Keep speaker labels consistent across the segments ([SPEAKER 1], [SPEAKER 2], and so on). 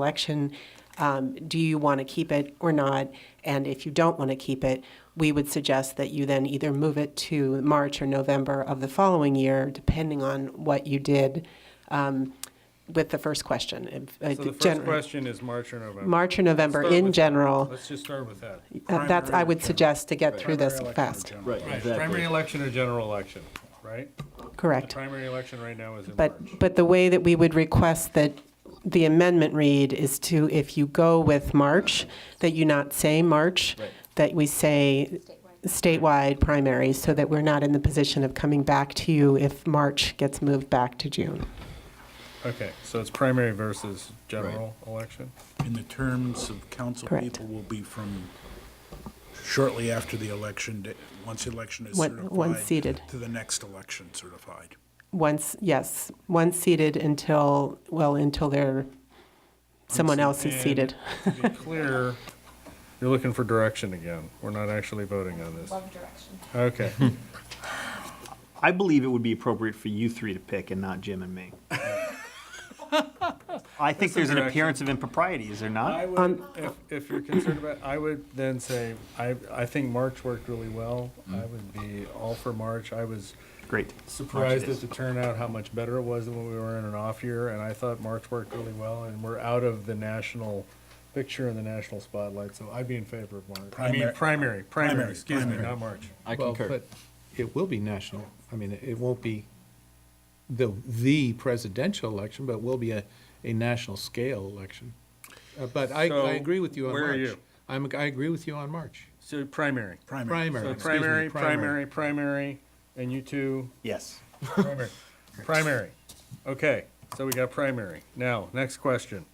[SPEAKER 1] election, um, do you want to keep it or not? And if you don't want to keep it, we would suggest that you then either move it to March or November of the following year, depending on what you did um, with the first question. If, uh,
[SPEAKER 2] So the first
[SPEAKER 1] general-
[SPEAKER 2] question is March or November?
[SPEAKER 1] March or November
[SPEAKER 2] Start
[SPEAKER 1] in
[SPEAKER 2] with-
[SPEAKER 1] general,
[SPEAKER 2] Let's just start with that.
[SPEAKER 1] uh, that's, I would suggest to get through this
[SPEAKER 3] Primary election or
[SPEAKER 1] fast.
[SPEAKER 3] general?
[SPEAKER 4] Right,
[SPEAKER 2] Right, primary
[SPEAKER 4] exactly.
[SPEAKER 2] election or general election, right? The
[SPEAKER 1] Correct.
[SPEAKER 2] primary election right now is in March.
[SPEAKER 1] But, but the way that we would request that the amendment read is to, if you go with March, that you not say March,
[SPEAKER 4] Right.
[SPEAKER 1] that we say statewide primary, so that we're not in the position of coming back to you if March gets moved back to June.
[SPEAKER 2] Okay, so it's primary versus general election?
[SPEAKER 3] And the terms of council
[SPEAKER 1] Correct.
[SPEAKER 3] people will be from shortly after the election, da- once the election is
[SPEAKER 1] When-
[SPEAKER 3] certified.
[SPEAKER 1] once seated.
[SPEAKER 3] To the next election certified.
[SPEAKER 1] Once, yes, once seated until, well, until they're, someone else is
[SPEAKER 2] And
[SPEAKER 1] seated.
[SPEAKER 2] To be clear, you're looking for direction again. We're not actually voting on this.
[SPEAKER 5] Love direction.
[SPEAKER 2] Okay,
[SPEAKER 4] I believe it would be appropriate for you three to pick and not Jim and me. I think there's an
[SPEAKER 2] direction.
[SPEAKER 4] appearance of impropriety, is
[SPEAKER 2] I
[SPEAKER 4] there not?
[SPEAKER 2] would, if, if you're concerned about, I would then say, I, I think March worked really well. I would be all for March. I was
[SPEAKER 4] Mm-hmm. Great.
[SPEAKER 2] surprised
[SPEAKER 4] March
[SPEAKER 2] at
[SPEAKER 4] it
[SPEAKER 2] the turnout, how much better it was than when we were in an off year, and I thought March worked really well, and we're out of the national picture and the national spotlight, so I'd be in favor of March. I mean, primary,
[SPEAKER 3] Primary-
[SPEAKER 2] primary,
[SPEAKER 3] primary,
[SPEAKER 2] excuse me,
[SPEAKER 3] primary.
[SPEAKER 2] not March.
[SPEAKER 4] I
[SPEAKER 6] Well, but It will be national. I mean, it won't be the, the presidential election, but it will be a, a national scale election. Uh, But I,
[SPEAKER 2] So,
[SPEAKER 6] I agree with you on March.
[SPEAKER 2] where are you?
[SPEAKER 6] I'm, I agree with you on March.
[SPEAKER 2] So primary.
[SPEAKER 3] Primary.
[SPEAKER 6] Primary,
[SPEAKER 2] So
[SPEAKER 6] excuse me,
[SPEAKER 2] primary, primary, primary, and you two,
[SPEAKER 4] Yes.
[SPEAKER 2] primary. Primary. Okay, so we got primary. Now, next question,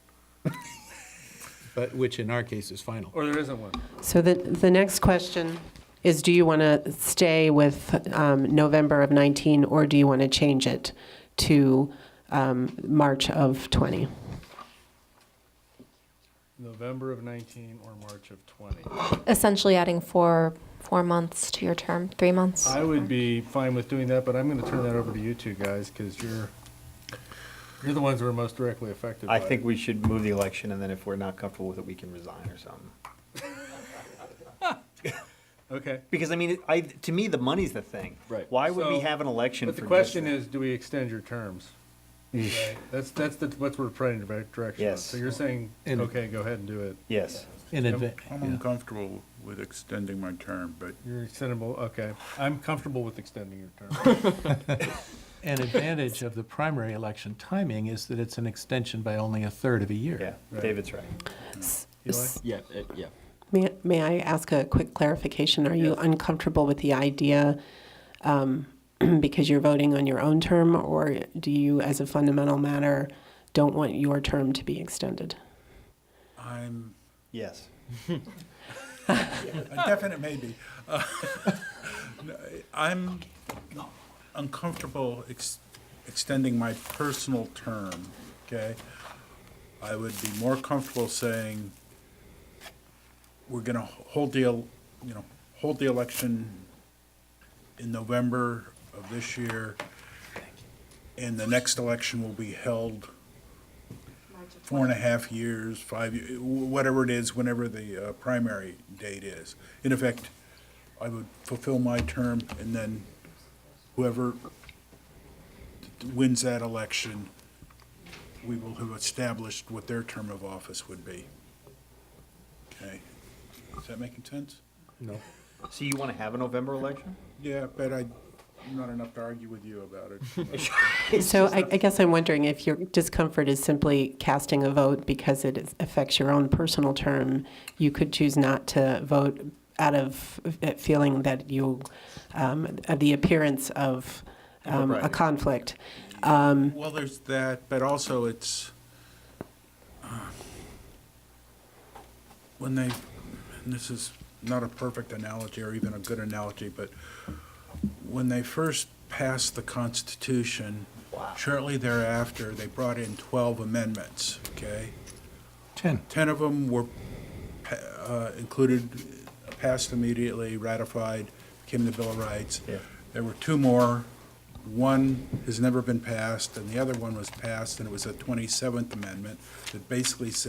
[SPEAKER 6] But, which in our case is final.
[SPEAKER 2] or Oh, there isn't one.
[SPEAKER 1] So the, the next question is, do you want to stay with um, November of 19, or do you want to change it to um, March of 20?
[SPEAKER 2] November of nineteen or March of twenty.
[SPEAKER 5] Essentially adding four, four months to your term, three months.
[SPEAKER 2] I would be fine with doing that, but I'm gonna turn that over to you two guys, because you're, you're the ones who are most directly affected by
[SPEAKER 4] I
[SPEAKER 2] it.
[SPEAKER 4] think we should move the election, and then if we're not comfortable with it, we can resign or something.
[SPEAKER 2] Okay,
[SPEAKER 4] Because, I mean, I, to me, the money's the thing.
[SPEAKER 2] Right.
[SPEAKER 4] Why would we
[SPEAKER 2] So-
[SPEAKER 4] have an election
[SPEAKER 2] but
[SPEAKER 4] for
[SPEAKER 2] the
[SPEAKER 4] just
[SPEAKER 2] question
[SPEAKER 4] that?
[SPEAKER 2] is, do we extend your terms? Right? That's, that's the, what we're trying to direct direction on.
[SPEAKER 4] Yes.
[SPEAKER 2] So you're saying,
[SPEAKER 6] And-
[SPEAKER 2] okay, go ahead and do it.
[SPEAKER 4] Yes.
[SPEAKER 6] In advance,
[SPEAKER 3] I'm uncomfortable with extending my term, but
[SPEAKER 2] You're extendable, okay. I'm comfortable with extending your term.
[SPEAKER 6] an advantage of the primary election timing is that it's an extension by only a third of a year.
[SPEAKER 4] Yeah,
[SPEAKER 2] Right.
[SPEAKER 4] David's right.
[SPEAKER 2] Eli?
[SPEAKER 7] Yeah, uh, yeah.
[SPEAKER 1] May, may I ask a quick clarification? Are you uncomfortable with the idea um, because you're voting on your own term, or do you, as a fundamental matter, don't want your term to be extended?
[SPEAKER 3] I'm,
[SPEAKER 4] Yes.
[SPEAKER 3] a definite maybe. Uh, no, I'm uncomfortable ex- extending my personal term, okay? I would be more comfortable saying, we're gonna hold the, el- you know, hold the election in November of this year, and the next election will be held four and a half years, five, ye- wh- whatever it is, whenever the uh, primary date is. In effect, I would fulfill my term, and then whoever wins that election, we will have established what their term of office would be. Okay? Is that making sense?
[SPEAKER 6] No.
[SPEAKER 4] So you want to have a November election?
[SPEAKER 3] Yeah, but I, not enough to argue with you about it.
[SPEAKER 1] So I, I guess I'm wondering if your discomfort is simply casting a vote because it is- affects your own personal term. You could choose not to vote out of uh, feeling that you, um, of the appearance of um, a
[SPEAKER 4] Impropriety.
[SPEAKER 1] conflict.
[SPEAKER 3] Well, there's that, but also it's, uh, when they, and this is not a perfect analogy or even a good analogy, but when they first passed the Constitution, shortly thereafter, they brought in 12 amendments, okay?
[SPEAKER 6] Ten.
[SPEAKER 3] 10 of them were pa- uh, included, passed immediately, ratified, became the Bill of Rights.
[SPEAKER 4] Yeah.
[SPEAKER 3] There were two more One has never been passed, and the other one was passed, and it was a 27th Amendment that basically said